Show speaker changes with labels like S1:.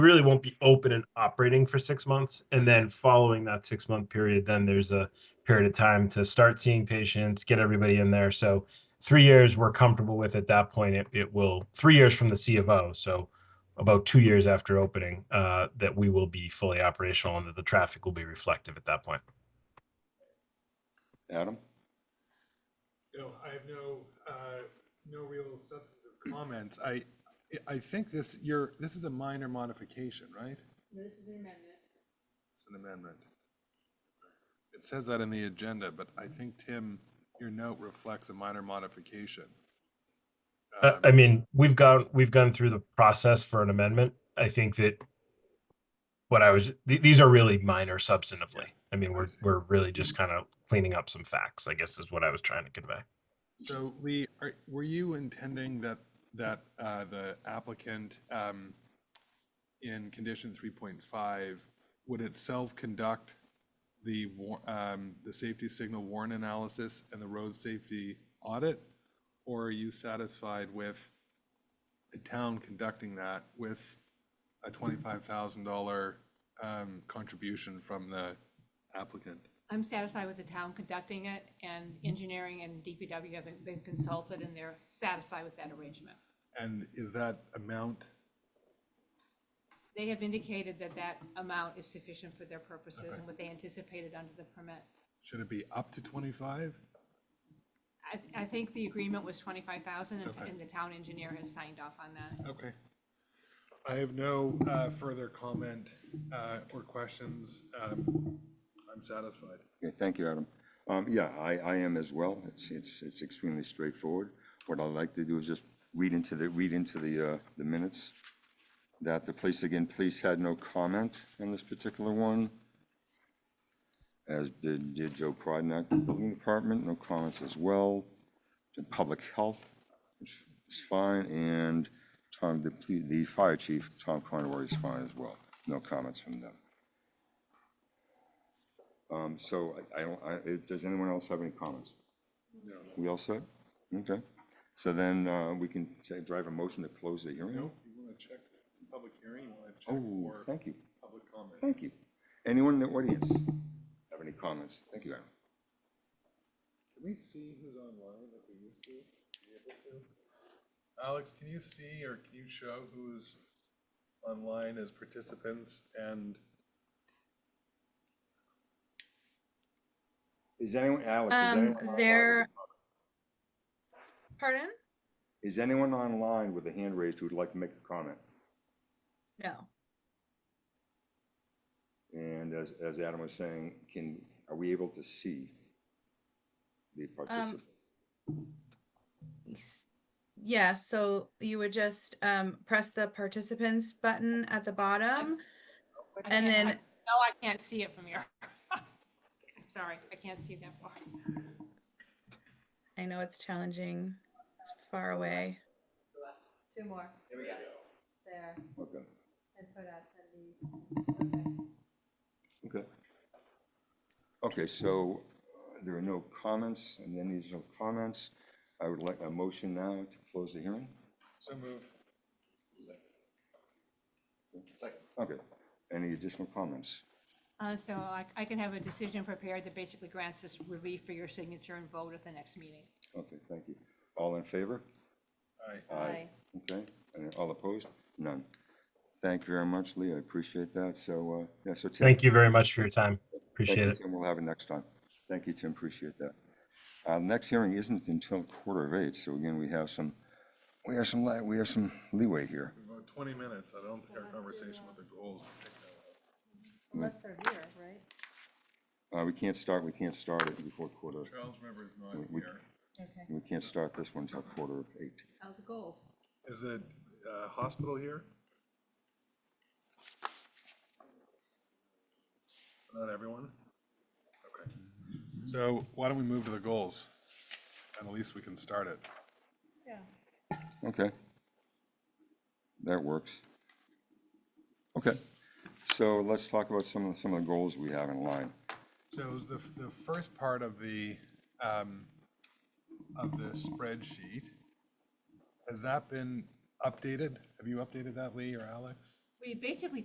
S1: really won't be open and operating for six months. And then following that six month period, then there's a period of time to start seeing patients, get everybody in there. So three years, we're comfortable with at that point. It, it will, three years from the CFO. So about two years after opening, uh, that we will be fully operational and that the traffic will be reflective at that point.
S2: Adam?
S3: No, I have no, uh, no real substantive comments. I, I think this, you're, this is a minor modification, right?
S4: This is an amendment.
S3: It's an amendment. It says that in the agenda, but I think, Tim, your note reflects a minor modification.
S1: I- I mean, we've gone, we've gone through the process for an amendment. I think that what I was, th- these are really minor substantively. I mean, we're,
S3: see.
S1: we're really just kind of cleaning up some facts, I guess is what I was trying to convey.
S3: So Lee, are, were you intending that, that, uh, the applicant, um, in condition three point five would itself conduct the war, um, the safety signal warrant analysis and the road safety audit? Or are you satisfied with the town conducting that with a twenty-five thousand dollar, um, contribution from the applicant?
S4: I'm satisfied with the town conducting it, and engineering and DPW have been consulted, and they're satisfied with that arrangement.
S3: And is that amount
S4: They have indicated that that amount is sufficient for their purposes and what they anticipated under the permit.
S3: Should it be up to 25?
S4: I, I think the agreement was twenty-five thousand,
S3: Okay.
S4: and the town engineer has signed off on that.
S3: Okay. I have no uh, further comment uh, or questions. Um, I'm satisfied.
S2: Okay, thank you, Adam. Um, yeah, I, I am as well. It's, it's, it's extremely straightforward. What I'd like to do is just read into the, read into the, uh, the minutes that the police, again, police had no comment on this particular one, as did, did Joe Prodnak, the building department, no comments as well. The Public health, which is fine, and Tom, the, ple- the fire chief, Tom Conroy is fine as well. No comments from them. Um, So I- I don't, I, it- does anyone else have any comments? No. We all set? Okay. So then uh, we can say, drive a motion to close the hearing?
S3: Nope, you want to check the public hearing, you want to check
S2: Oh,
S3: for
S2: thank you,
S3: public comment?
S2: thank you. Anyone in the audience have any comments? Thank you, Aaron.
S3: Can we see who's online if we used to be able to? Alex, can you see or can you show who's online as participants and?
S2: Is anyone, Alex, is
S5: Um,
S2: anyone? online with a
S5: there-
S2: comment?
S5: Pardon?
S2: Is anyone online with a hand raised who would like to make a comment?
S5: No.
S2: And as, as Adam was saying, can, are we able to see
S5: Um,
S2: the participant?
S5: S- Yeah, so you would just um, press the participants button at the bottom.
S4: I
S5: And
S4: can't-
S5: then-
S4: I- No, I can't see it from here. I'm Sorry, I can't see that far.
S5: I know it's challenging. It's far away.
S4: Two more. Here we go. There,
S2: Okay,
S4: and put up, and
S2: okay. Okay, so uh, there are no comments, and then there's no comments. I would like a motion now to close the hearing.
S3: So moved.
S2: Okay, any additional comments?
S4: Uh, so I, I can have a decision prepared that basically grants this relief for your signature and vote at the next meeting.
S2: Okay, thank you. All in favor?
S3: Aye.
S2: Okay, and all opposed? None. Thank you very much, Lee, I appreciate that, so, uh, yeah, so Tim.
S1: Thank you very much for your time.
S2: Thank you,
S1: Appreciate it.
S2: Tim. We'll have it next time. Thank you, Tim, appreciate that. Uh, Next hearing isn't until quarter of eight, so again, we have some, we have some, li- we have some leeway here.
S3: About 20 minutes. I don't think our conversation with the goals.
S4: Unless they're here, right?
S2: Uh, We can't start, we can't start it before quarter,
S3: Charles River is not
S2: We-
S3: here.
S4: Okay.
S2: we can't start this one until quarter of eight.
S4: Oh, the goals.
S3: Is the uh, hospital here? Not everyone? Okay. So why don't we move to the goals? And at least we can start it.
S2: Okay. That works. Okay, so let's talk about some of, some of the goals we have in line.
S3: So it was the, the first part of the, um, of the spreadsheet, has that been updated? Have you updated that, Lee or Alex?
S4: We basically